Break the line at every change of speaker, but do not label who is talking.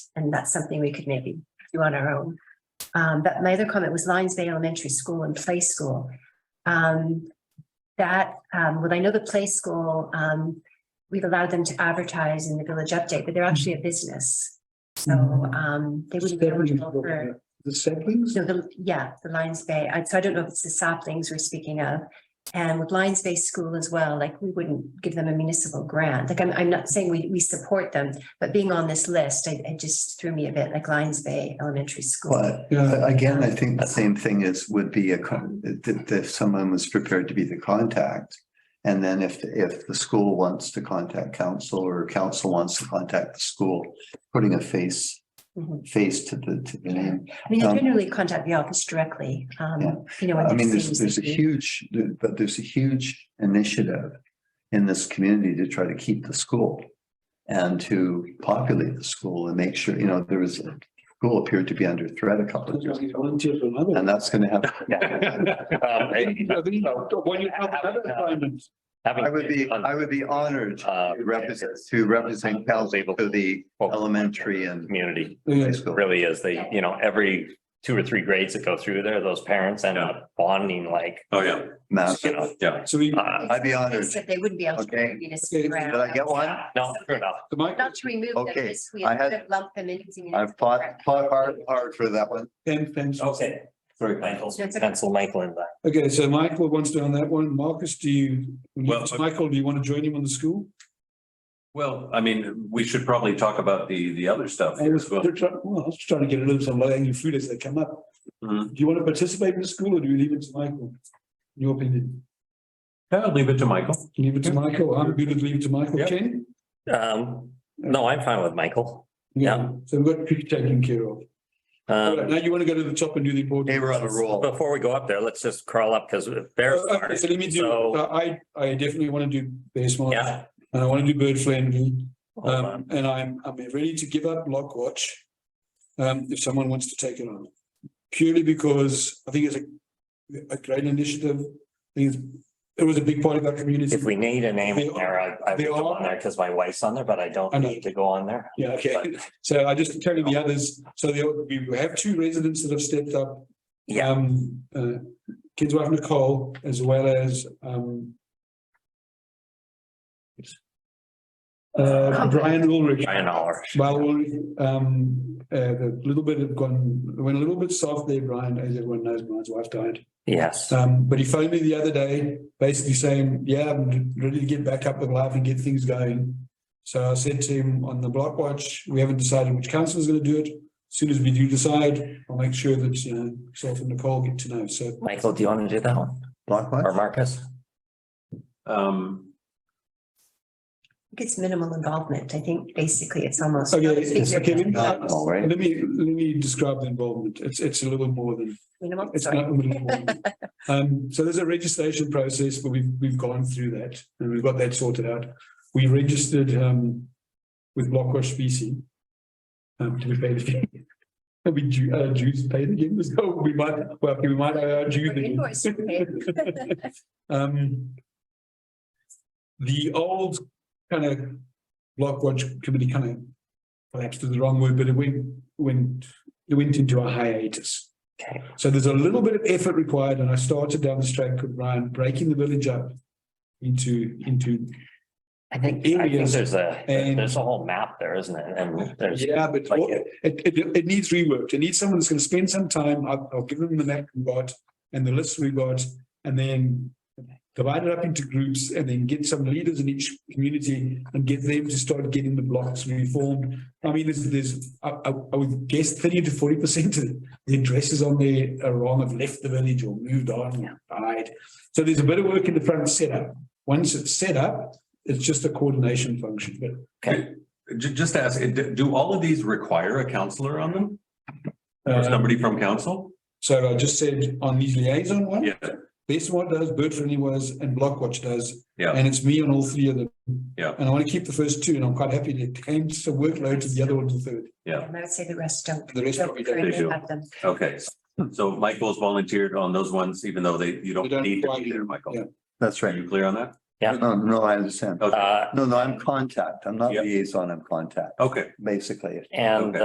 And that's something we could maybe do on our own. Um, but my other comment was Lions Bay Elementary School and Play School. Um, that, um, well, I know the Play School, um, we've allowed them to advertise in the Village Update, but they're actually a business. So, um, they wouldn't be eligible for.
The saplings?
So the, yeah, the Lions Bay, I, so I don't know if it's the saplings we're speaking of. And with Lions Bay School as well, like we wouldn't give them a municipal grant. Like I'm, I'm not saying we, we support them, but being on this list, I, it just threw me a bit like Lions Bay Elementary School.
But uh, again, I think the same thing is, would be a, con- if, if someone was prepared to be the contact. And then if, if the school wants to contact council or council wants to contact the school, putting a face,
Mhm.
face to the, to the name.
I mean, I
Um,
generally contact the office directly,
Yeah.
um, you know. when
I mean,
there's things
there's, there's a
that we-
huge, but there's a huge initiative in this community to try to keep the school and to populate the school and make sure, you know, there was, a school appeared to be under threat a couple of years ago.
Volunteer for another.
And that's gonna happen.
Um, hey,
When you have another assignment.
having-
I would be, I would be honored
Uh,
to represent, to represent Pellsable to the elementary and
Community
high
Yeah.
school.
really is they, you know, every two or three grades that go through there, those parents end up bonding like,
Oh, yeah,
Mass-
you know.
yeah.
So we,
uh,
I'd be honored.
Except they wouldn't be able
Okay.
to. municipal
Okay, did
grant.
Did I get one?
No, fair enough.
the mic,
Not to remove them,
Okay,
just we
I had-
lump them in. using
I've
municipal
fought,
grant.
fought hard, hard for that one.
ten pens.
Okay. Sorry, Michael, pencil Michael in that.
Okay, so Michael wants to on that one. Marcus, do you,
Well, I-
Michael, do you want to join him on the school?
Well, I mean, we should probably talk about the, the other stuff
I
here
was,
as well.
they're try- well, I was trying to get rid of some low hanging fruit as they come up.
Mhm.
Do you want to participate in the school or do you leave it to Michael? In Your opinion,
Yeah, I'll leave it to Michael.
leave it to Michael. I'm good at leave it to Michael.
Yeah.
Ken?
Um, no, I'm fine with Michael. Yeah.
So we've got Pete taken care of. All right,
Um,
Now you want to go to the top and do the important.
They were on a roll.
before we go up there, let's just crawl up because bears.
Oh, Okay, so let me do, uh,
So,
I, I definitely want to do bear smart.
Yeah.
And I want to do bird friendly,
hold
um,
on.
and I'm, I'm ready to give up lock watch. Um, if someone wants to take it on, purely because I think it's a, a great initiative. I think it's, it was a big part of our community.
If we need a name in there, I, I would
They
go
are-
on there because my wife's on there, but I don't
I know.
need to go on there.
Yeah, okay, so I just tell you the others, so there, we have two residents that have stepped up.
Yeah.
Um, uh, kids wife Nicole, as well as, um. Uh, Brian Ulrich.
Brian Aller.
Well, we, um, uh, the little bit had gone, went a little bit soft there, Brian, as everyone knows, Brian's wife died.
Yes.
Um, but he phoned me the other day, basically saying, yeah, I'm ready to get back up with life and get things going. So I said to him on the block watch, we haven't decided which council is gonna do it. As Soon as we do decide, I'll make sure that, you know, myself and Nicole get to know, so.
Michael, do you want to do that one?
Block what?
Or Marcus?
Um,
I think It's minimal involvement. I think basically it's almost.
Okay,
I think
it's- okay, let me,
Not all right.
let me, let me describe the involvement. It's, it's a little more than
Minimal,
It's
sorry.
not unbelievable. Um, so there's a registration process, but we've, we've gone through that and we've got that sorted out. We registered, um, with Blockwash BC. Um, to be paid again. Are we due, uh, dues paid again? Let's go. We might, well, okay, we might owe our dues
Our invoice is paid.
again. Um. The old kind of Blockwatch committee kind of collapsed is the wrong word, but it went, went, it went into a hiatus.
Okay.
So there's a little bit of effort required, and I started down this track with Ryan, breaking the village up into, into,
I think, I think
Areas
there's a,
and-
there's a whole map there, isn't it? And there's,
yeah, but
like-
what- it, it, it needs reworked. It needs someone that's gonna spend some time. I'll, I'll give them the map we got and the list we got, and then divide it up into groups and then get some leaders in each community and get them to start getting the blocks reformed. I mean, there's, there's, I, I, I would guess thirty to forty percent of the addresses on there are wrong, have left the village or moved on, died. So there's a bit of work in the front setup. Once it's set up, it's just a coordination function, but
ju- just to ask, do, do all of these require a counselor on them? Or
uh,
somebody from council?
So I just said on these liaison one.
Yeah.
Best one does, Bird Friendly was, and Blockwatch does.
Yeah.
And it's me on all three of them.
Yeah.
And I want to keep the first two, and I'm quite happy to change the workload to the other one to third.
And I would say the rest don't.
The rest
don't
probably don't.
currently
They do.
have them.
Okay,
hmm.
so Michael's volunteered on those ones, even though they, you don't
They don't
need to
require
be there,
you. Yeah.
Michael.
That's
Are
right.
you clear on that?
No, no, I understand.
Okay,
uh,
No, no, I'm contact. I'm not
Yeah.
liaison, I'm contact,
okay.
basically.
and
Okay.